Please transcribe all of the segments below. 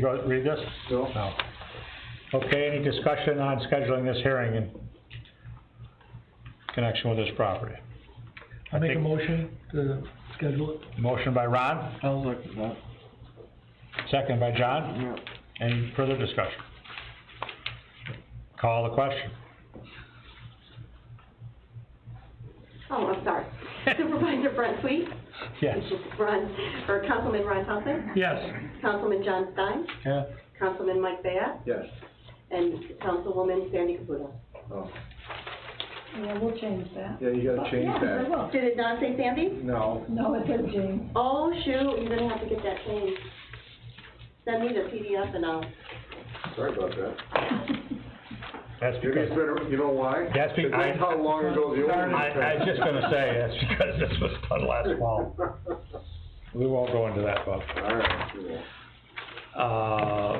Go- Read this? No. Okay, any discussion on scheduling this hearing in connection with this property? I make a think- motion to schedule it. Motion by Ron, I'll look at that, second by John. yeah. Any further discussion? Call the question. Oh, I'm sorry. Supervisor Brent Sweet? Yes. Ron, or Councilman Ron Thompson? Yes. Councilman John Stein? Yeah. Councilman Mike Bayat? Yes. And Councilwoman Sandy Caputo. Oh, Yeah, we'll change that. yeah, you gotta change Yeah, I that. will. Did it not say Sandy? No, No, it says James. Oh, shoot, you're gonna have to get that changed. Send me the PDF and I'll, sorry about that. That's Maybe because, it's been, you know why? that's Because because. that's how long ago the old one I, I was just gonna say, that's because this was done last fall. We won't go into that, Bob. All right, cool. uh,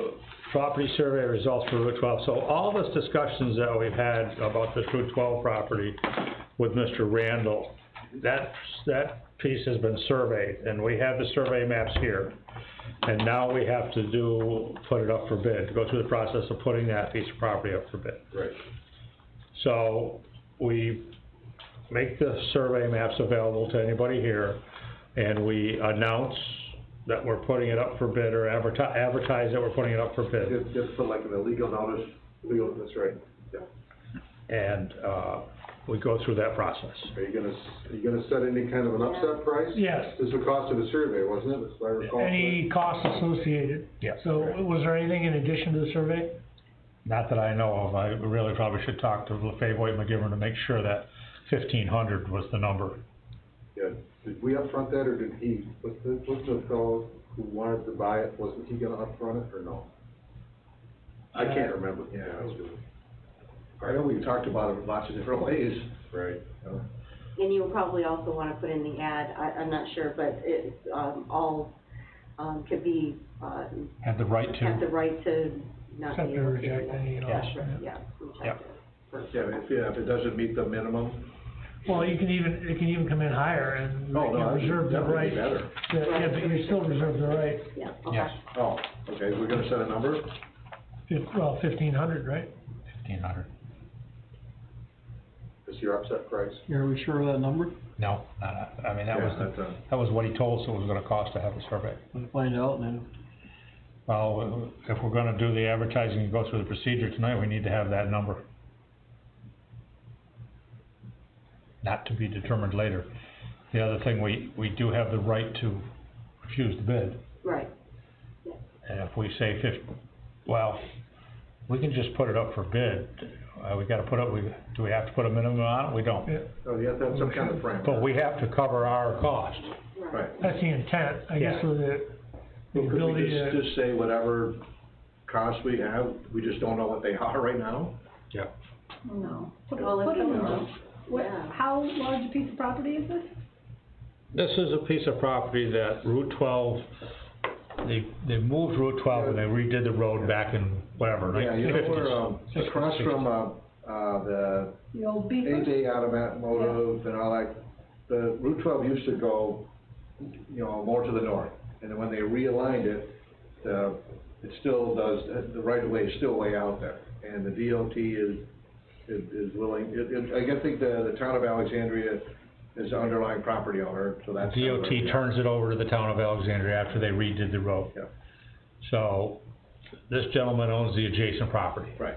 property survey results for Route twelve. So all this discussions that we've had about this Route twelve property with Mr. Randall, that, that piece has been surveyed, and we have the survey maps here. And now we have to do, put it up for bid, go through the process of putting that piece of property up for bid. Right. So, we make the survey maps available to anybody here, and we announce that we're putting it up for bid or advertise, advertise that we're putting it up for bid. Just, just put like an illegal notice, legal, that's right. Yeah. And, uh, we go through that process. Are you gonna, s- are you gonna set any kind of an upset price? Yes. This is the cost of the survey, wasn't it, if I recall? Any costs associated? Yeah. So was there anything in addition to the survey? Not that I know of, I really probably should talk to LaFave White McGivern to make sure that fifteen hundred was the number. Yeah, did we upfront that, or did he, was the, was the fellow who wanted to buy it, wasn't he gonna upfront it, or no? I can't remember. Yeah. I know we've talked about it lots of different ways. Right. and you'll probably also wanna put in the ad, I, I'm not sure, but it, um, all, um, could be, uh, Had the right have the to, right to not be Accept or able to. reject any and all that. Yeah, reject Yep. it. For- Yeah, if, yeah, if it doesn't meet the minimum. Well, you can even, it can even come in higher and you Oh, no, that would reserve the definitely right. be to- better. Yeah, but you still reserve the right, Yeah, okay. yes, Oh, okay, we're gonna set a number? fif- well, fifteen hundred, right? fifteen hundred. Is your upset price? Are we sure of that number? No, not, I mean, that was, Yeah, that's the- a- that was what he told us it was gonna cost to have the survey. We'll find out and then. Well, if we're gonna do the advertising and go through the procedure tonight, we need to have that number. Not to be determined later. The other thing, we, we do have the right to refuse the bid, Right, and if we say fif- well, we can just put it up for bid. Uh, we gotta put up, we, do we have to put a minimum on it? We don't. Yeah, Oh, you have to have some kind of frame. But we have to cover our cost. right. Right. that's the intent, I guess, Yeah. with the, the Well, could we ability just, to, just say whatever costs we have, we just don't know what they are right now? Yeah. No. Put Well, put it's- in the, what, Yeah. how large a piece of property is this? This is a piece of property that Route twelve, they, they moved Route twelve and they redid the road back in whatever, Yeah, nineteen you know fifties. where, um, across from, uh, uh, the The old beaver? AJ Automotive and all that, the Route twelve used to go, you know, more to the north. And then when they realigned it, the, it still does, uh, the right of way is still way out there. And the DOT is, is, is willing, it, it, I guess, think the, the town of Alexandria is the underlying property owner, so that's. DOT turns it over to the town of Alexandria after they redid the road. Yeah. So, this gentleman owns the adjacent property Right.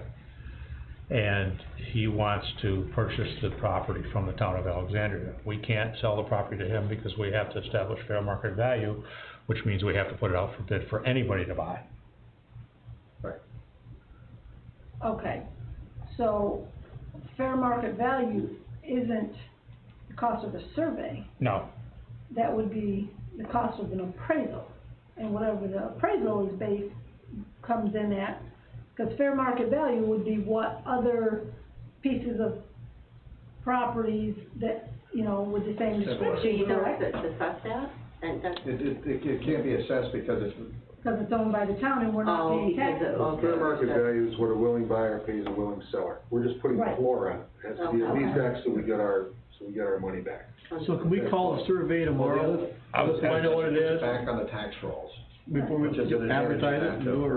and he wants to purchase the property from the town of Alexandria. We can't sell the property to him because we have to establish fair market value, which means we have to put it out for bid for anybody to buy. Okay, so fair market value isn't the cost of a survey. No, That would be the cost of an appraisal. And whatever the appraisal is based, comes in at, because fair market value would be what other pieces of properties that, you know, with the same Similar. Do description, you know correct? to assess that? And that's, It, it, it- it can't be assessed because it's. Because it's owned by the town and we're not Oh, paying because taxes. it- oh, Fair market okay. value is what a willing buyer pays a willing seller. We're just putting the Right. floor on it. It has to be at least X, so we get our, so we get our money back. So can we call a survey tomorrow? I Find out what it is Back on the tax rolls. before we Which is an advantage advertise of it that, and too. do it